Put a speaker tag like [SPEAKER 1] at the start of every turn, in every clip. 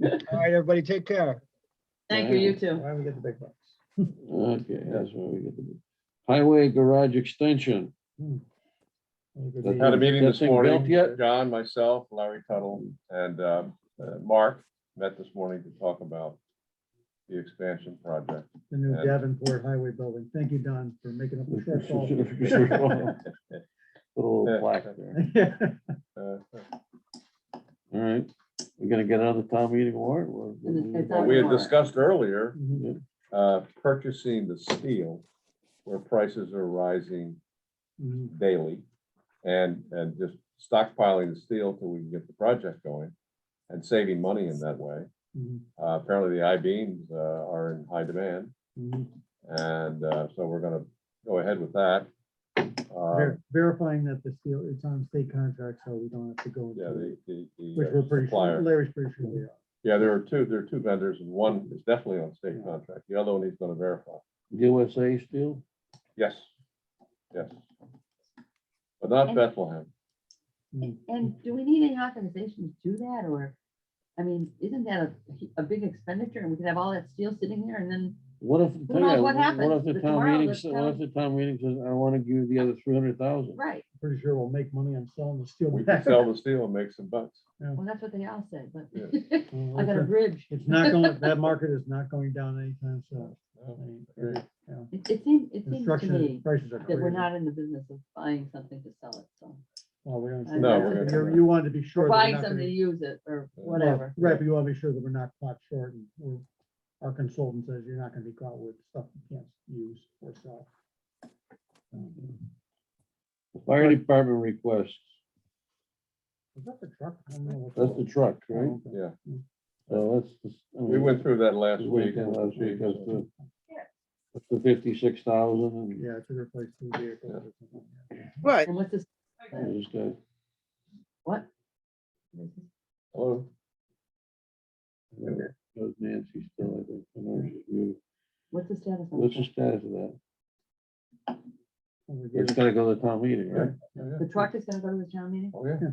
[SPEAKER 1] right, everybody, take care.
[SPEAKER 2] Thank you, you too.
[SPEAKER 1] Why don't we get the big bucks?
[SPEAKER 3] Okay, that's where we get the highway garage extension.
[SPEAKER 4] Had a meeting
[SPEAKER 3] That's
[SPEAKER 4] this
[SPEAKER 3] been built
[SPEAKER 4] morning,
[SPEAKER 3] yet?
[SPEAKER 4] John, myself, Larry Tuttle, and um, uh, Mark met this morning to talk about the expansion project.
[SPEAKER 1] The new Davenport Highway Building. Thank you, Don, for making up the shortfall.
[SPEAKER 3] Little black there.
[SPEAKER 4] Uh,
[SPEAKER 3] All right, we're gonna get another town meeting warrant. or-
[SPEAKER 2] And it's- it's
[SPEAKER 4] well,
[SPEAKER 2] on-
[SPEAKER 4] We had discussed earlier,
[SPEAKER 1] Mhm.
[SPEAKER 4] uh, purchasing the steel where prices are rising
[SPEAKER 1] Mhm.
[SPEAKER 4] daily and, and just stockpiling the steel till we can get the project going and saving money in that way.
[SPEAKER 1] Mhm.
[SPEAKER 4] Uh, Apparently the I-beams uh, are in high demand.
[SPEAKER 1] Mhm.
[SPEAKER 4] And uh, so we're gonna go ahead with that. Uh,
[SPEAKER 1] Ver- Verifying that the steel, it's on state contract, so we don't have to go.
[SPEAKER 4] Yeah,
[SPEAKER 1] into it,
[SPEAKER 4] the, the,
[SPEAKER 1] Which
[SPEAKER 4] the
[SPEAKER 1] we're
[SPEAKER 4] uh,
[SPEAKER 1] pretty sure,
[SPEAKER 4] supplier.
[SPEAKER 1] Larry's pretty sure we are.
[SPEAKER 4] Yeah, there are two, there are two vendors and one is definitely on state
[SPEAKER 1] Yeah.
[SPEAKER 4] contract. The other one he's gonna verify.
[SPEAKER 3] USA still?
[SPEAKER 4] Yes, yes. But not Bethlehem.
[SPEAKER 1] Mhm.
[SPEAKER 2] And do we need any authorization to do that, or, I mean, isn't that a, a big expenditure, and we could have all that steel sitting there, and then,
[SPEAKER 3] What if?
[SPEAKER 2] Who knows what happens,
[SPEAKER 3] What if the
[SPEAKER 2] but
[SPEAKER 3] town
[SPEAKER 2] tomorrow
[SPEAKER 3] meeting,
[SPEAKER 2] the
[SPEAKER 3] sa- what if
[SPEAKER 2] town-
[SPEAKER 3] the town meeting says, I wanna give you the other three hundred thousand?
[SPEAKER 2] right,
[SPEAKER 1] Pretty sure we'll make money on selling the steel.
[SPEAKER 4] We can
[SPEAKER 1] back.
[SPEAKER 4] sell the steel and make some bucks.
[SPEAKER 2] well, that's what they all said, but
[SPEAKER 1] Uh,
[SPEAKER 2] I got a
[SPEAKER 1] it's-
[SPEAKER 2] bridge.
[SPEAKER 1] It's not going, that market is not going down anytime soon. I
[SPEAKER 4] No,
[SPEAKER 1] mean,
[SPEAKER 4] agree.
[SPEAKER 2] It, it seems, it seems to
[SPEAKER 1] Construction
[SPEAKER 2] me
[SPEAKER 1] prices are
[SPEAKER 2] that we're
[SPEAKER 1] crazy.
[SPEAKER 2] not in the business of buying something to sell it, so.
[SPEAKER 1] Well, we don't.
[SPEAKER 2] No,
[SPEAKER 1] say
[SPEAKER 4] we're
[SPEAKER 1] that.
[SPEAKER 4] gonna-
[SPEAKER 1] You're- You want to be
[SPEAKER 2] Or
[SPEAKER 1] sure. that we're
[SPEAKER 2] buying
[SPEAKER 1] not gonna-
[SPEAKER 2] something to use it, or
[SPEAKER 4] Well,
[SPEAKER 1] Well,
[SPEAKER 2] whatever.
[SPEAKER 1] Right, but you want to be sure that we're not caught short and we're, our consultant says you're not going to be caught with stuff you can't use or sell. Um,
[SPEAKER 3] Fire department requests,
[SPEAKER 1] Is that the truck? I don't know what
[SPEAKER 3] that's the
[SPEAKER 1] it's
[SPEAKER 3] truck, right?
[SPEAKER 1] called. Oh, okay.
[SPEAKER 4] Yeah,
[SPEAKER 3] So that's. the- I
[SPEAKER 4] we
[SPEAKER 3] mean,
[SPEAKER 4] went through that last
[SPEAKER 3] we
[SPEAKER 4] week.
[SPEAKER 3] went down last week, That's
[SPEAKER 4] So
[SPEAKER 3] the that's the fifty-six thousand
[SPEAKER 1] Yeah, to replace two vehicles. or something, yeah.
[SPEAKER 5] Right,
[SPEAKER 2] And what's this,
[SPEAKER 3] and this guy.
[SPEAKER 2] what?
[SPEAKER 4] Hello,
[SPEAKER 3] That was Nancy still, I think. I know she's muted.
[SPEAKER 2] What's the status on
[SPEAKER 3] What's the
[SPEAKER 2] that?
[SPEAKER 3] status of that?
[SPEAKER 1] And we gave
[SPEAKER 3] It's
[SPEAKER 1] it-
[SPEAKER 3] gotta go to town meeting, right?
[SPEAKER 4] Oh, yeah.
[SPEAKER 2] The truck is gonna go to the town meeting?
[SPEAKER 4] Oh, yeah.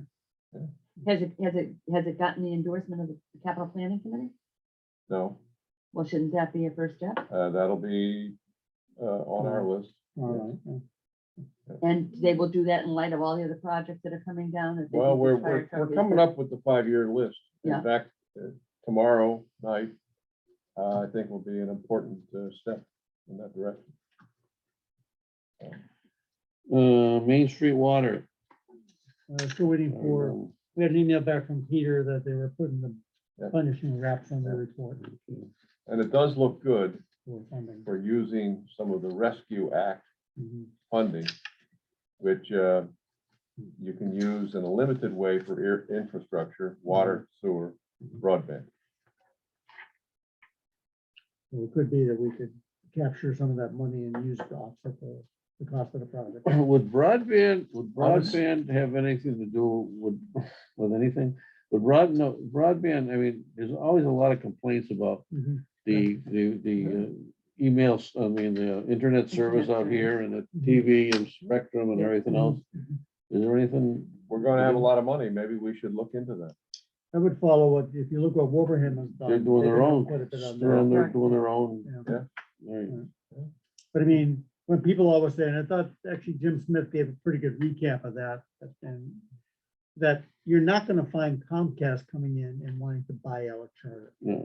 [SPEAKER 2] Has it, has it, has it gotten the endorsement of the capital planning committee?
[SPEAKER 4] No,
[SPEAKER 2] Well, shouldn't that be a first step?
[SPEAKER 4] uh, that'll be, uh, on our list.
[SPEAKER 1] All right, yeah.
[SPEAKER 2] And they will do that in light of all the other projects that are coming down. that they
[SPEAKER 4] Well,
[SPEAKER 2] think
[SPEAKER 4] we're,
[SPEAKER 2] this fire
[SPEAKER 4] we're,
[SPEAKER 2] truck
[SPEAKER 4] we're
[SPEAKER 2] is-
[SPEAKER 4] coming up with the five-year list.
[SPEAKER 2] Yeah.
[SPEAKER 4] In fact, uh, tomorrow night, uh, I think will be an important, uh, step in that direction.
[SPEAKER 3] Uh, Main Street Water.
[SPEAKER 1] Uh, Still waiting for,
[SPEAKER 3] Um,
[SPEAKER 1] we had an email back from Peter that they were putting the
[SPEAKER 4] Yeah.
[SPEAKER 1] punishing wraps on the report
[SPEAKER 4] And it does look good
[SPEAKER 1] for funding.
[SPEAKER 4] for using some of the Rescue Act
[SPEAKER 1] Mhm.
[SPEAKER 4] funding, which, uh, you can use in a limited way for air, infrastructure, water, sewer, broadband.
[SPEAKER 1] So It could be that we could capture some of that money and use it to offset the, the cost of the project.
[SPEAKER 3] Would broadband, would
[SPEAKER 4] I was-
[SPEAKER 3] broadband have anything to do with, with anything? But broad, no, broadband, I mean, there's always a lot of complaints about
[SPEAKER 1] Mhm.
[SPEAKER 3] the, the, the uh, emails, I mean, the internet service out
[SPEAKER 2] service.
[SPEAKER 3] here and the TV and Spectrum and
[SPEAKER 1] Yeah. Mm-hmm.
[SPEAKER 3] everything else. Is there anything?
[SPEAKER 4] We're gonna
[SPEAKER 1] Mhm.
[SPEAKER 4] have a lot of money. Maybe we should look into that.
[SPEAKER 1] I would follow what, if you look what Wolverhampton's done.
[SPEAKER 3] They're doing
[SPEAKER 1] they've
[SPEAKER 3] their
[SPEAKER 1] done
[SPEAKER 3] own,
[SPEAKER 1] quite a bit on
[SPEAKER 3] they're
[SPEAKER 1] that.
[SPEAKER 3] on their,
[SPEAKER 2] Right.
[SPEAKER 3] doing their own.
[SPEAKER 1] Yeah.
[SPEAKER 3] Right.
[SPEAKER 1] But I mean, when people always say, and I thought actually Jim Smith gave a pretty good recap of that, and that you're not gonna find Comcast coming in and wanting to buy out Charter.
[SPEAKER 3] Yeah.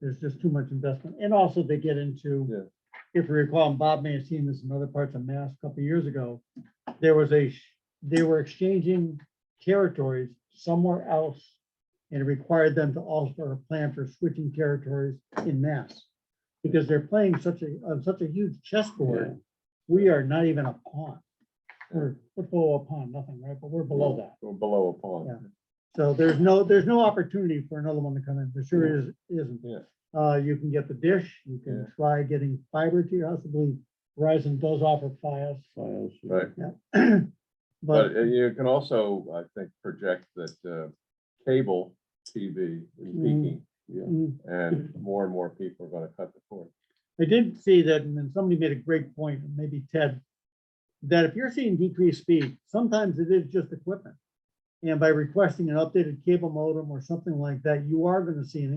[SPEAKER 1] There's just too much investment. And also they get into, if you recall, and Bob may have seen this in other parts of Mass a couple of years ago, there was a, sh- they were exchanging territories somewhere else and it required them to also plan for switching territories in Mass. Because they're playing such a, on such a huge chessboard, we are not even a pawn. We're, we're below a pawn, nothing, right? But we're below that.
[SPEAKER 4] Or below a pond.
[SPEAKER 1] Yeah. So there's no, there's no opportunity for another one to come in. There sure is, isn't.
[SPEAKER 4] Yeah.
[SPEAKER 1] Uh, you can get the dish, you can
[SPEAKER 4] Yeah.
[SPEAKER 1] try getting fiber to your house. I believe Verizon does offer Fios.
[SPEAKER 3] Files.
[SPEAKER 4] Right.
[SPEAKER 1] But,
[SPEAKER 4] But uh, you can also, I think, project that uh, cable TV is
[SPEAKER 1] Mhm.
[SPEAKER 4] peaking
[SPEAKER 3] Yeah.
[SPEAKER 1] mm,
[SPEAKER 4] and more and more people are going to cut the cord.
[SPEAKER 1] I did see that, and then somebody made a great point, and maybe Ted, that if you're seeing decreased speed, sometimes it is just equipment. And by requesting an updated cable modem or something like that, you are gonna see an